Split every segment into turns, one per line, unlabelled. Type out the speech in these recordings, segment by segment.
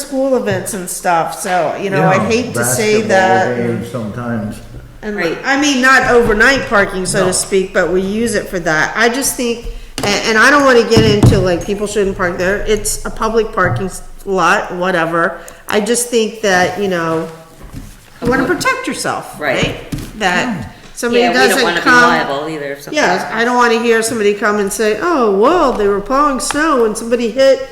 school events and stuff, so, you know, I'd
Yeah,
hate to say that.
basketball games Sometimes,
And
Right.
I mean, not overnight parking, so
No.
to speak, but we use it for that. I just think, and, and I don't want to get into like people shouldn't park there. It's a public parking s- lot, whatever. I just think that you know, you want to protect yourself,
Right.
right? That somebody
Yeah, we
doesn't
don't wanna be
come.
liable either if something.
Yes, I don't want to hear somebody come and say, "Oh, well, they were plowing snow and somebody hit,"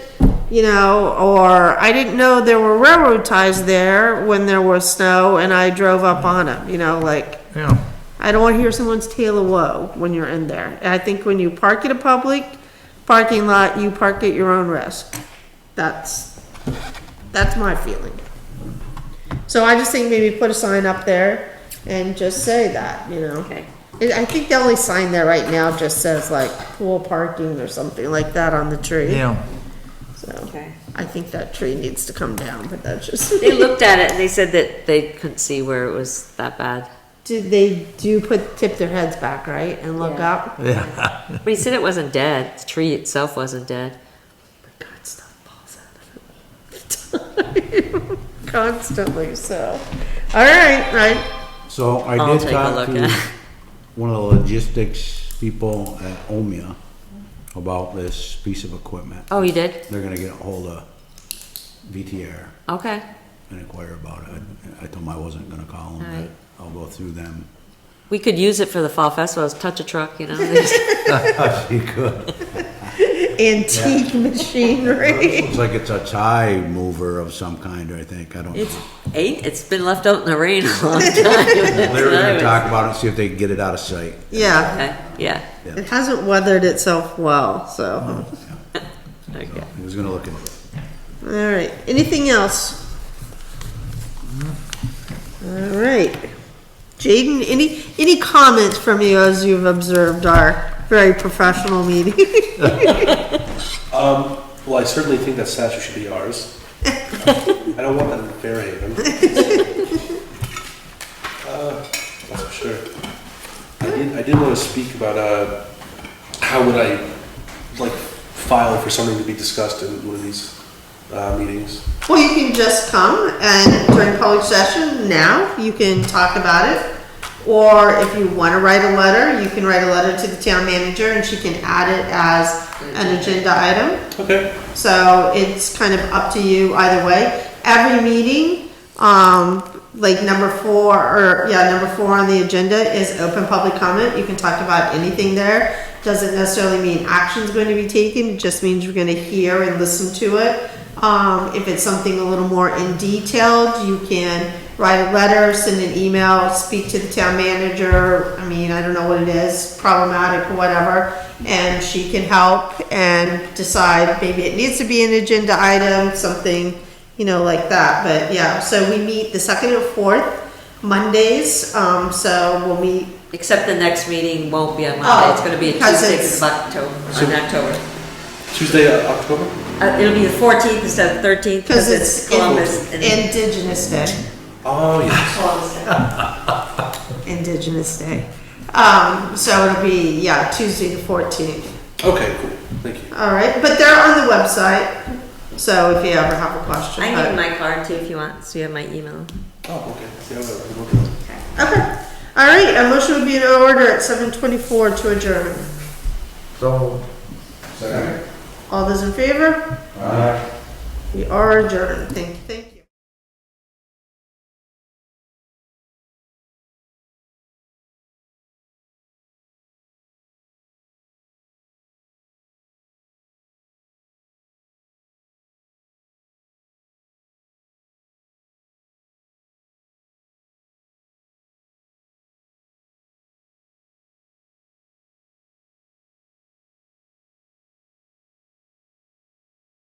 you know, or "I didn't know there were railroad ties there when there was snow and I drove up on them." You know, like
yeah.
I don't want to hear someone's tale of woe when you're in there. And I think when you park at a public parking lot, you park at your own risk. That's that's my feeling. So I just think maybe put a sign up there and just say that, you know.
Okay.
I I think the only sign there right now just says like pool parking or something like that on the tree.
Yeah,
So
Okay.
I think that tree needs to come down, but that's just.
They looked at it and they said that they couldn't see where it was that bad.
Did they do put, tip their heads back, right, and look
Yeah.
up?
yeah.
But he said it wasn't dead. The tree itself wasn't dead.
God, stuff falls out of it all the time. Constantly, so. All right, right.
So I
I'll
did
take a
talk
look
to
at it.
one of the logistics people at Omia about this piece of equipment.
Oh, you did?
They're gonna get ahold of VTR
Okay.
and inquire about it. I- I told them I wasn't gonna call them,
Alright.
but I'll go through them.
We could use it for the fall festivals. Touch a truck, you know. they just-
You could.
Antique machinery.
Looks like it's a tie mover of some kind, I think. I don't know.
It's eight. It's been left out in the rain a long time.
They were gonna talk about it, and see if they can get it out of sight.
Yeah,
Okay. Yeah.
it hasn't weathered itself well, so.
Okay.
He was gonna look into it.
All right, anything else? All right. Jaden, any, any comments from you as you've observed our very professional meeting?
Um, well, I certainly think that statue should be ours. I don't want that in Fairhaven. Uh, That's for sure. I did, I did want to speak about, uh, how would I, like, file for something to be discussed in one of these, uh, meetings?
Well, you can just come and during public session now, you can talk about it. Or if you want to write a letter, you can write a letter to the town manager and she can add it as an agenda item.
Okay.
So it's kind of up to you either way. Every meeting, um, like number four, or, yeah, number four on the agenda is open public comment. You can talk about anything there. Doesn't necessarily mean action's going to be taken, it just means you're gonna hear and listen to it. Um, if it's something a little more in detailed, you can write a letter, send an email, speak to the town manager. I mean, I don't know what it is, problematic or whatever, and she can help and decide maybe it needs to be an agenda item, something, you know, like that. But yeah, so we meet the second and fourth Mondays, um, so we'll meet,
Except the next meeting won't be on
Oh,
Monday. It's going to be a
because
Tuesday
it's-
because of October. On October.
Tuesday, uh, October?
Uh, it'll be the 14th instead of 13th
cause it's
Columbus. and-
Indigenous Day.
Oh, yes.
Indigenous Day. Um, so it'll be, yeah, Tuesday the fourteenth.
Okay, cool. Thank you.
All right, but they're on the website, so if you ever have a question.
I
but-
need my card too if you want. So you have my email.
Oh, okay. Yeah, well, I'm looking.
Okay, all right, a motion would be in order at seven twenty-four to adjourn.
So,
All those in favor? Aye. We are adjourned, thank you.